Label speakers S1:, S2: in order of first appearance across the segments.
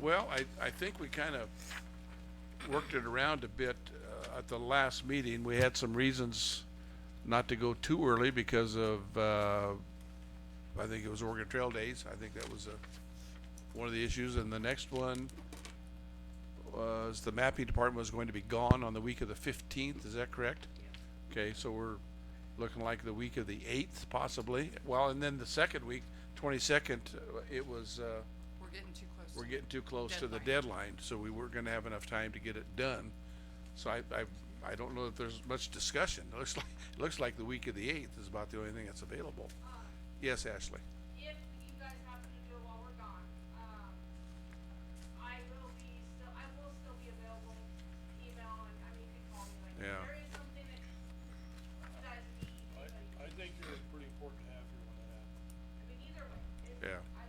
S1: Well, I, I think we kind of worked it around a bit uh, at the last meeting. We had some reasons not to go too early because of, uh, I think it was Oregon Trail Days. I think that was a, one of the issues. And the next one was the mapping department was going to be gone on the week of the fifteenth. Is that correct? Okay, so we're looking like the week of the eighth possibly. Well, and then the second week, twenty-second, it was, uh,
S2: We're getting too close.
S1: we're getting too close to the
S2: Deadline.
S1: deadline, so we weren't gonna have enough time to get it done. So I, I, I don't know that there's much discussion. It looks like, it looks like the week of the eighth is about the only thing that's available. Yes, Ashley?
S3: if you guys happen to do it while we're gone, um, I will be still, I will still be available, email, and, I mean, you can call me, like, if
S1: Yeah.
S3: there is something that you guys need,
S4: I,
S3: anybody,
S4: I think you're pretty important to have here when that happens.
S3: I mean, either way, if,
S1: Yeah.
S3: I,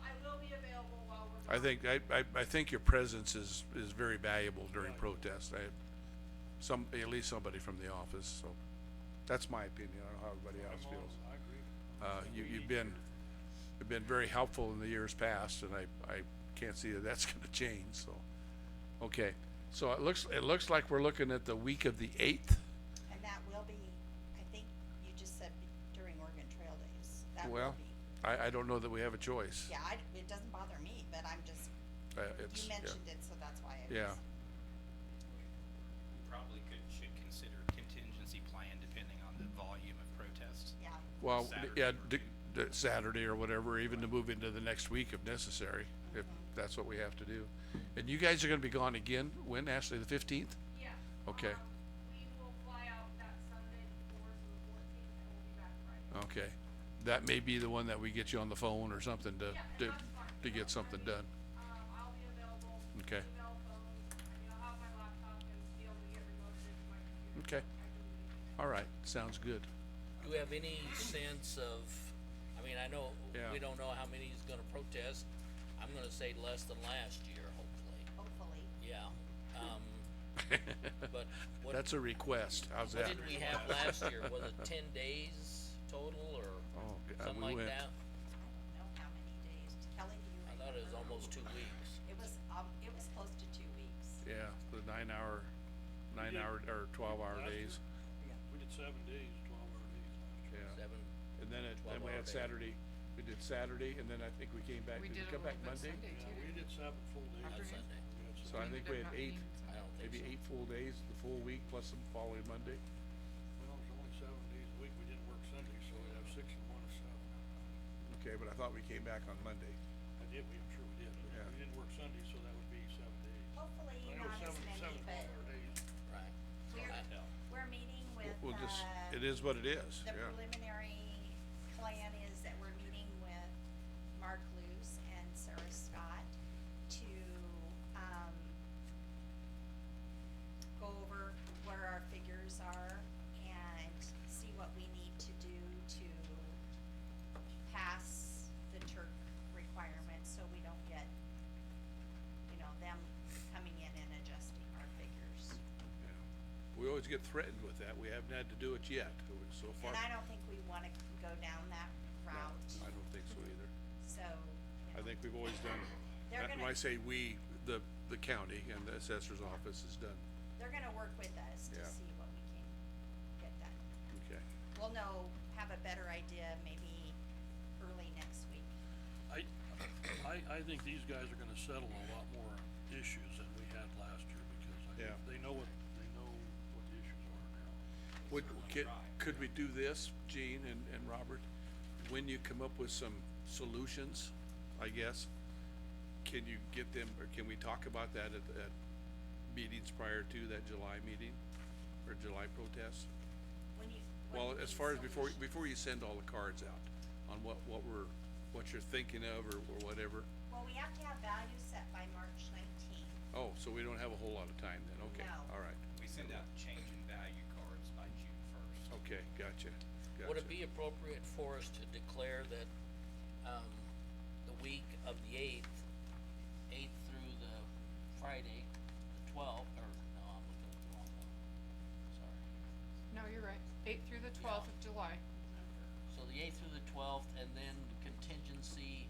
S3: I will be available while we're gone.
S1: I think, I, I, I think your presence is, is very valuable during protest. I, some, at least somebody from the office, so that's my opinion. I don't know how everybody else
S4: I'm all,
S1: feels.
S4: I agree.
S1: Uh, you, you've been, you've been very helpful in the years past, and I, I can't see that that's gonna change, so. Okay, so it looks, it looks like we're looking at the week of the eighth.
S5: And that will be, I think you just said during Oregon Trail Days, that will
S1: Well,
S5: be.
S1: I, I don't know that we have a choice.
S5: Yeah, I, it doesn't bother me, but I'm just,
S1: Uh,
S5: you
S1: it's,
S5: mentioned
S1: yeah,
S5: it, so that's why I was.
S1: Yeah.
S6: We probably could, should consider contingency plan depending on the volume of protests.
S5: Yeah,
S1: well,
S6: Saturday
S1: yeah,
S6: or
S1: d- d- Saturday or whatever, even to move into the next week if necessary, if
S5: Mm-hmm.
S1: that's what we have to do. And you guys are gonna be gone again, when, Ashley, the fifteenth?
S3: Yeah. Um,
S1: Okay.
S3: we will fly out that Sunday before, so the fourteenth, and we'll be back Friday.
S1: Okay, that may be the one that we get you on the phone or something to,
S3: Yeah, and
S1: to,
S3: that's fine.
S1: to get something done.
S3: Um, I'll be available.
S1: Okay.
S3: Email, phone, I mean, I'll have my laptop and be able to get remote into my computer. I
S1: Okay.
S3: can do it.
S1: All right, sounds good.
S7: Do we have any sense of, I mean, I know,
S1: Yeah.
S7: we don't know how many is gonna protest, I'm gonna say less than last year, hopefully,
S5: hopefully.
S7: yeah, um, but what,
S1: That's a request, how's
S7: what
S1: that?
S7: did we have last year, was it ten days total, or
S1: Oh, yeah,
S7: something
S1: we
S7: like
S1: went-
S5: I
S7: that?
S5: don't know how many days. Kelly, do you?
S7: I thought it was almost two weeks,
S5: It was, um, it was close to two weeks.
S1: Yeah, the nine hour, nine hour, or twelve hour
S4: Last year,
S1: days,
S4: We did seven days, twelve hour days.
S1: yeah.
S7: seven,
S1: And then it, then
S7: 12
S1: we
S7: hour
S1: had
S7: days.
S1: Saturday, we did Saturday, and then I think we came back,
S2: We
S1: did we
S2: did a
S1: come
S2: little
S1: back
S2: bit
S1: Monday?
S2: Sunday
S4: Yeah,
S2: too.
S4: we did seven full days.
S7: on
S2: After him?
S7: Sunday,
S4: We had
S1: So I
S4: seven.
S1: think we had eight,
S7: I don't think so.
S1: maybe eight full days, the full week plus some following Monday.
S4: Well, it's only seven days a week. We didn't work Sunday, so we'd have six and one or seven.
S1: Okay, but I thought we came back on Monday.
S4: I did, we, I'm sure we did.
S1: Yeah.
S4: We didn't work Sunday, so that would be seven days.
S5: Hopefully
S4: I know
S5: not as
S4: seven-
S5: many,
S4: seven
S5: but
S4: 12 hour days.
S7: Right,
S5: we're,
S7: I know.
S5: we're meeting with,
S1: We'll just,
S5: uh,
S1: it is what it is,
S5: the
S1: yeah.
S5: preliminary plan is that we're meeting with Mark Luce and Sarah Scott to, um, go over where our figures are and see what we need to do to pass the Turk requirement so we don't get, you know, them coming in and adjusting our figures.
S1: Yeah. We always get threatened with that, we haven't had to do it yet, so far.
S5: And I don't think we wanna go down that
S1: No, I
S5: route,
S1: don't think so either.
S5: so. you
S1: I
S5: know.
S1: think we've always done,
S5: They're
S1: and when
S5: gonna-
S1: I say we, the, the county and the assessor's office has done,
S5: They're gonna work with us to
S1: Yeah.
S5: see what we can get done.
S1: okay.
S5: We'll know, have a better idea maybe early next week.
S4: I, I, I think these guys are gonna settle a lot more issues than we had last year, because I
S1: Yeah.
S4: think they know what, they know what the issues are now.
S1: Would, could, could we do this, Gene and, and Robert? When you come up with some solutions, I guess, can you get them, or can we talk about that at, at meetings prior to that July meeting? Or July protest?
S5: When you. when
S1: Well,
S5: you
S1: as
S5: do
S1: far as before,
S5: solution-
S1: before you send all the cards out on what, what we're, what you're thinking of or, or whatever.
S5: Well, we have to have values set by March nineteenth.
S1: Oh, so we don't have a whole lot of time then, okay,
S5: No.
S1: all right,
S6: We send out change in value cards by June first.
S1: okay, gotcha, gotcha.
S7: Would it be appropriate for us to declare that, um, the week of the eighth, eighth through the Friday, the twelfth, or, no, I'm looking at the wrong one, sorry.
S2: No, you're right. Eight through the twelfth of July.
S7: So the eighth through the twelfth, and then contingency